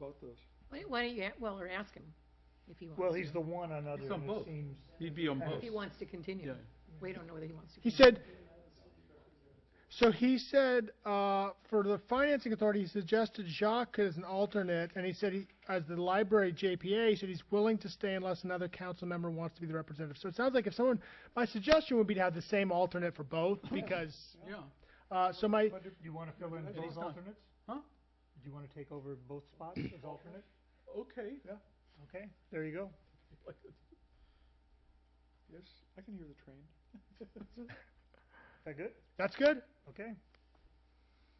both those. Why- Why don't you, a- well, or ask him if he wants to. Well, he's the one on other, He's on and it both. seems, He'd be on If both. If he wants to continue. Yeah. We don't know whether he wants to. He continue. said, so he said, uh, for the financing authority, he suggested Jacques as an alternate, and he said he, as the library JPA, he said he's willing to stay unless another council member wants to be the representative. So it sounds like if someone, my suggestion would be to have the same alternate for both, because, Yeah. uh, so my, But do you wanna fill in But both he's not- alternates? Huh? Do you wanna take over both spots as alternate? Okay. Okay, there you go. Yes, I can hear the train. Is that good? that's good. Okay.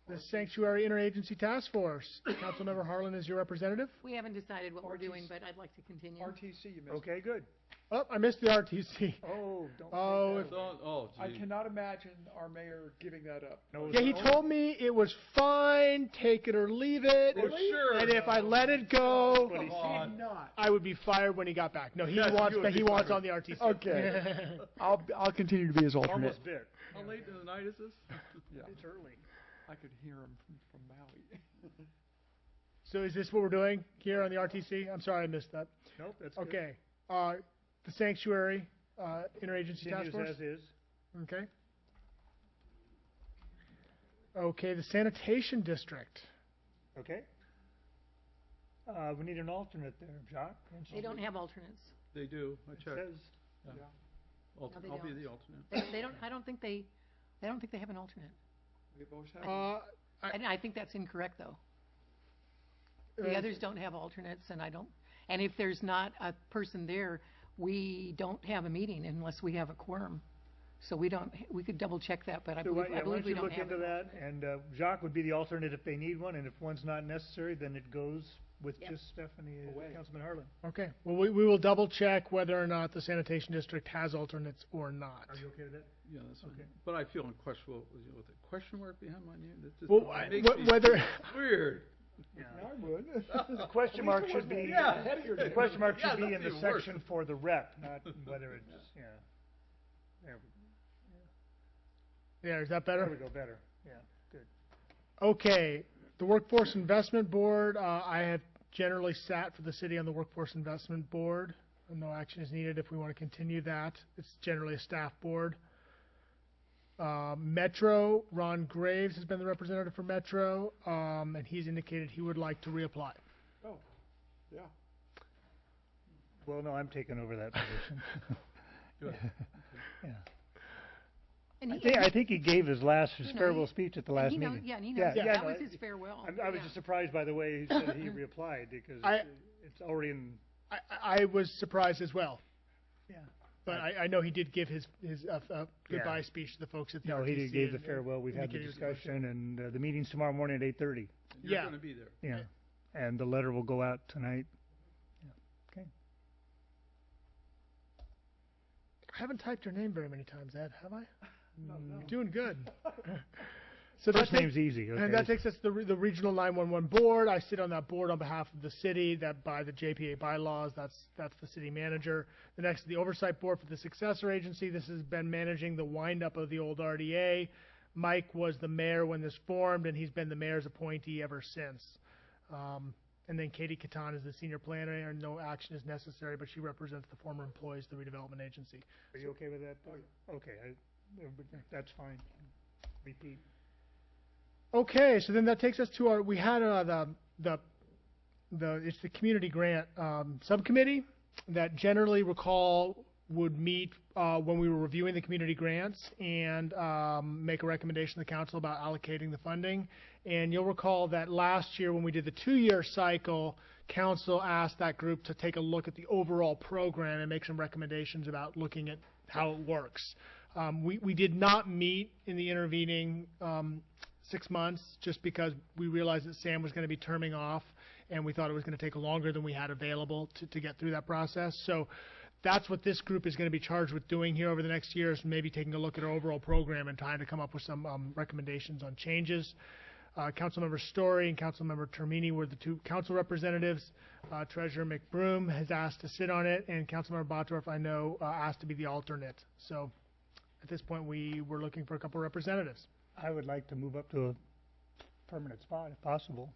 The Sanctuary Interagency Task Force, Councilmember Harlan is your representative. We haven't decided what we're doing, Ortiz. but I'd like to continue. RTC, you Okay, good. Oh, I missed the RTC. Oh, don't. Oh, take if- that away. Oh, gee. cannot imagine our mayor giving that up. No, Yeah, he told me it was fine, take it or leave it. Well, sure. And if I let it go, But he Come on. Not. I would be fired when he got back. No, he Yes, wants you would that he be wants fired. on the RTC. Okay. I'll, I'll continue to be his alternate. Almost there. How late in the night is this? Yeah, It's early. I could hear him from, from Maui. so is this what we're doing here on the RTC? I'm sorry I missed that. Nope, that's good. Okay. Uh, the sanctuary uh, interagency task Continues force. as is. Okay. Okay, the sanitation district. Okay. Uh, we need an alternate there, Jacques. and They don't have alternates. They do. I It checked. says, Yeah. Yeah. Alt- No, they I'll be don't. the alternate. They, they don't, I don't think they, I don't think they have an alternate. We've always had. Uh, I- And I think that's incorrect, though. The uh, others don't have alternates, and I don't, and if there's not a person there, we don't have a meeting unless we have a quorum. So we don't, we could double-check that, but I So why- believe, yeah, I why believe don't we you don't look have into it. that, and uh, Jacques would be the alternate if they need one, and if one's not necessary, then it goes with Yep. just Stephanie and Away. Councilman Harlan. Okay. Well, we, we will double check whether or not the sanitation district has alternates or not. Are you okay with that? Yeah, that's fine. Okay. But I feel unquestionable with you know, with the question mark behind my name. That just Well, I- makes me wh- whether weird. Yeah. I would. The question mark should be, Yeah. Ahead of your the time. question mark Yeah, should be that's in the even worse. section for the rep, not whether it's, yeah. There we- yeah, is that There better? we go, better, yeah. Okay, the Workforce Investment Board, uh, I have generally sat for the city on the Workforce Investment Board. No action is needed if we want to continue that. It's generally a staff board. Uh, Metro, Ron Graves has been the representative for Metro, um, and he's indicated he would like to reapply. Yeah. Well, no, I'm taking over that position. And I he- think, I think he gave his last, his You know, farewell he- speech at the and last he knows- meeting. Yeah, and he Yeah, knows, yeah, that no, was I- his farewell. I'm- I was yeah. just surprised by the way he said he replied, because I- it's already in, I, I- I was surprised as well, yeah. but I, I know he did give his, his uh, uh, Yeah. goodbye speech to the folks at the No, he did- RTC gave the and- farewell, we've had the indicated he was- discussion, and uh, the meeting's tomorrow morning at eight thirty, And You're Yeah. going to be there. yeah. And the letter will go out tonight. I haven't typed your name very many times, Ed, have I? No, no. You're doing good. so that First takes, name's easy, okay? and that takes us to the, re- the regional 911 board. I sit on that board on behalf of the city. That by the JPA bylaws, that's that's the city manager. The next is the oversight board for the successor agency. This has been managing the windup of the old RDA. Mike was the mayor when this formed, and he's been the mayor's appointee ever since. Um, and then Katie Catan is the senior planner, and no action is necessary, but she represents the former employees of the redevelopment agency. Are you okay with that? Okay, I- everybody- that's fine. Repeat. Okay, so then that takes us to our, we had, uh, the, the, the, it's the community grant, um, subcommittee that generally recall would meet, uh, when we were reviewing the community grants and, um, make a recommendation to the council about allocating the funding. And you'll recall that last year when we did the two-year cycle, council asked that group to take a look at the overall program and make some recommendations about looking at how it works. Um, we, we did not meet in the intervening, um, six months just because we realized that Sam was going to be terming off and we thought it was going to take longer than we had available to, to get through that process. So that's what this group is going to be charged with doing here over the next year is maybe taking a look at our overall program and trying to come up with some um, recommendations on changes. Uh, Councilmember Story and Councilmember Termini were the two council representatives. Uh, Treasurer McBroom has asked to sit on it, and Councilmember Botdorf, I know, uh, asked to be the alternate. So at this point, we were looking for a couple representatives. I would like to move up to a permanent spot if possible.